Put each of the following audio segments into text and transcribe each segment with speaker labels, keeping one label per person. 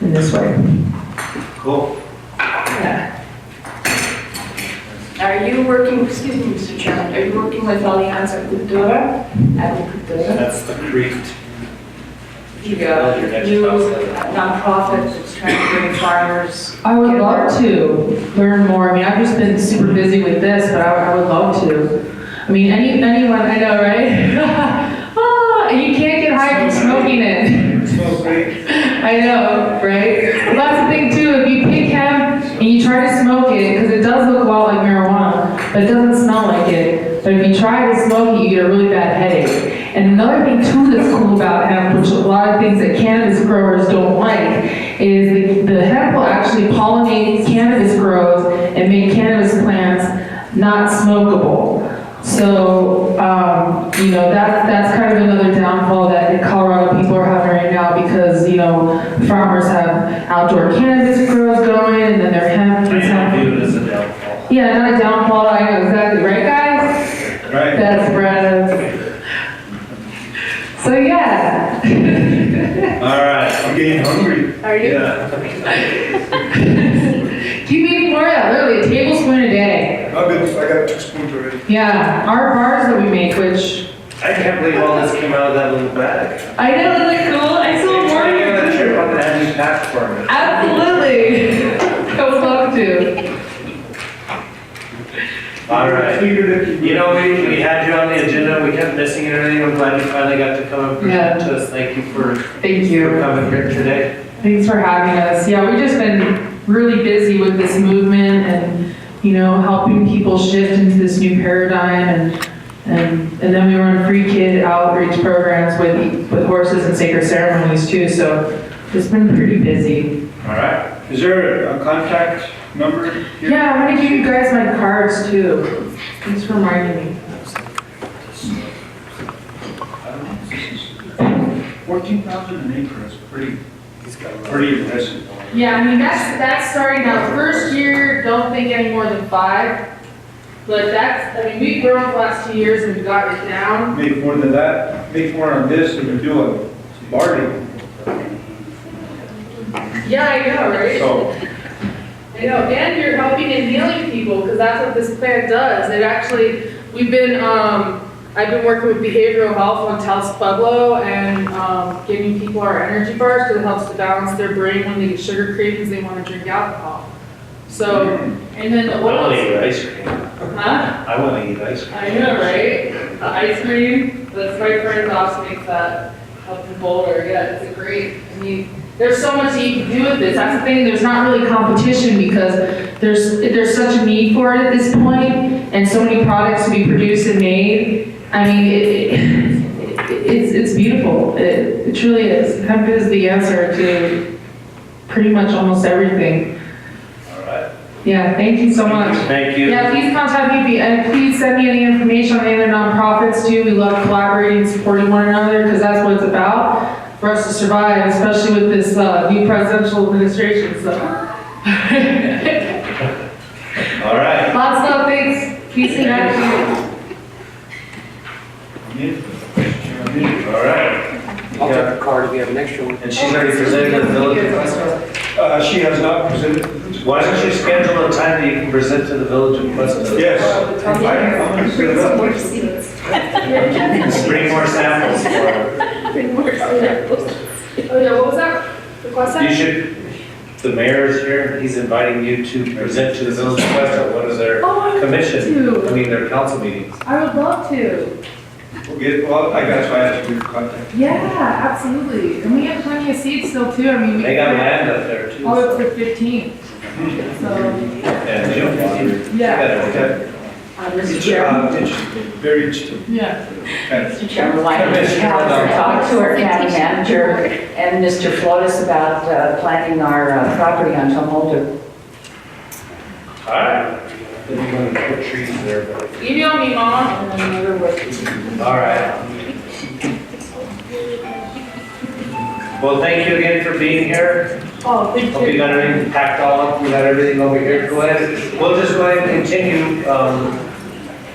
Speaker 1: in this way.
Speaker 2: Cool.
Speaker 3: Yeah.
Speaker 4: Are you working, excuse me, Mr. Chairman, are you working with Alianza Cultura? Adi Cultura?
Speaker 2: That's the creek.
Speaker 4: The
Speaker 2: Build your
Speaker 4: uh,
Speaker 2: next
Speaker 4: new
Speaker 2: house later.
Speaker 4: nonprofit that's trying to bring farmers.
Speaker 1: I would love to learn more. I mean, I've just been super busy with this, but I, I would love to. I mean, any, anyone, I know, right? ah, you can't get high from smoking it.
Speaker 2: Smoke break.
Speaker 1: I know, right? Well, that's the thing too. If you pick hemp and you try to smoke it, because it does look a lot like marijuana, but it doesn't smell like it. But if you try to smoke it, you get a really bad headache. And another thing too that's cool about hemp, which a lot of things that cannabis growers don't like, is the, the hemp will actually pollinate cannabis grows and make cannabis plants not smokable. So, um, you know, that, that's kind of another downfall that the Colorado people are having right now because, you know, farmers have outdoor cannabis grows going and then their hemp. is
Speaker 2: I
Speaker 1: hemp.
Speaker 2: view it as a downfall.
Speaker 1: Yeah, not a downfall, I know exactly, right guys?
Speaker 2: Right.
Speaker 1: That's Brad. So, yeah.
Speaker 2: All right, I'm getting hungry.
Speaker 4: Are you?
Speaker 2: Yeah.
Speaker 1: Keep eating more of that, literally a tablespoon a day.
Speaker 2: I'm good. I got two spoons already.
Speaker 1: Yeah, our bars that we make, which,
Speaker 2: I can't believe all this came out of that little bag.
Speaker 1: I know, they look cool, I still
Speaker 2: I
Speaker 1: want
Speaker 2: got a
Speaker 1: you.
Speaker 2: trip on the Andy Pack Farm.
Speaker 1: Absolutely. I would love to.
Speaker 2: All right. You know, we, we had you on the agenda, we kept missing it, and I'm glad you finally got to come and present
Speaker 1: Yeah.
Speaker 2: to us. Thank you for
Speaker 1: Thank
Speaker 2: for
Speaker 1: you.
Speaker 2: coming here today.
Speaker 1: Thanks for having us. Yeah, we've just been really busy with this movement and, you know, helping people shift into this new paradigm and, and, and then we run free kid outreach programs with, with horses and sacred ceremonies too, so it's been pretty busy.
Speaker 2: All right. Is there a contact number
Speaker 1: Yeah, I'm gonna give you guys my cards too. Thanks for reminding me.
Speaker 2: Fourteen thousand an acre is pretty, pretty impressive.
Speaker 1: Yeah, I mean, that's, that's starting out, first year, don't think any more than five. But that's, I mean, we've grown the last two years and we've got it down.
Speaker 5: Make more than that, make more on this and we do a bargain,
Speaker 1: Yeah, I know, right?
Speaker 5: so.
Speaker 1: I know, and you're helping and healing people, because that's what this plant does. It actually, we've been, um, I've been working with behavioral health on Taos Pueblo and, um, giving people our energy bars, because it helps to balance their brain when they get sugar cravings, they want to drink alcohol. So, and then
Speaker 2: I
Speaker 1: what
Speaker 2: want
Speaker 1: else?
Speaker 2: to eat ice cream.
Speaker 1: Huh?
Speaker 2: I want to eat ice cream.
Speaker 1: I know, right? The ice cream, that's my friend Ross makes that up in Boulder, yeah, it's a great, I mean, there's so much you can do with this, that's the thing, there's not really competition because there's, there's such a need for it at this point, and so many products to be produced and made, I mean, it, it, it's, it's beautiful, it, it truly is. Hemp is the answer to pretty much almost everything.
Speaker 2: All right.
Speaker 1: Yeah, thank you so much.
Speaker 2: Thank you.
Speaker 1: Yeah, please contact me, and please send me any information on the other nonprofits too. We love collaborating, and supporting one another, because that's what it's about, for us to survive, especially with this, uh, new presidential administration, so.
Speaker 2: All right.
Speaker 1: Lots of things, peace and action.
Speaker 2: All right.
Speaker 6: I'll take the card if you have an extra one.
Speaker 2: And she's already presented at the village of
Speaker 5: Uh, she has not presented.
Speaker 2: Quesco? Why don't you schedule a time that you can present to the village of Quesco?
Speaker 5: Yes. I- I'm
Speaker 4: Bring
Speaker 5: set
Speaker 4: some
Speaker 5: up.
Speaker 4: more seeds.
Speaker 2: Bring more samples for
Speaker 4: Bring more seeds.
Speaker 1: Oh, yeah, what was that? What's
Speaker 2: her. You should, the mayor's here, he's inviting you to present to the village of Quesco, what is their
Speaker 1: Oh, I would
Speaker 2: commission, I
Speaker 1: love to,
Speaker 2: mean, their council meetings.
Speaker 1: I would love to,
Speaker 5: We'll get, well, I got, so I asked you to contact.
Speaker 1: yeah, absolutely, and we have plenty of seats still too, I mean. we
Speaker 2: They got land up there too.
Speaker 1: Oh, it's the fifteenth, so,
Speaker 2: And they don't want you.
Speaker 1: yeah,
Speaker 2: Okay.
Speaker 4: Uh, Mr. Chairman.
Speaker 5: Uh, it's Very interesting.
Speaker 1: yeah.
Speaker 5: Kind of.
Speaker 7: Mr. Chairman, why don't you have her talk to our county manager and Mr. Flotis about uh, planning our uh, property on Tom Holder?
Speaker 2: All right. Then you're gonna put trees there, but.
Speaker 1: Email me, mom.
Speaker 2: All right. Well, thank you again for being here.
Speaker 1: Oh, thank
Speaker 2: Hope you got everything packed all up, we got everything over here. Go ahead, we'll just go ahead and continue um,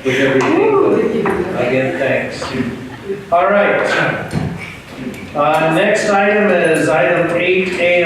Speaker 2: with everything. Again, thanks. All right. Uh, Next item is item 8A,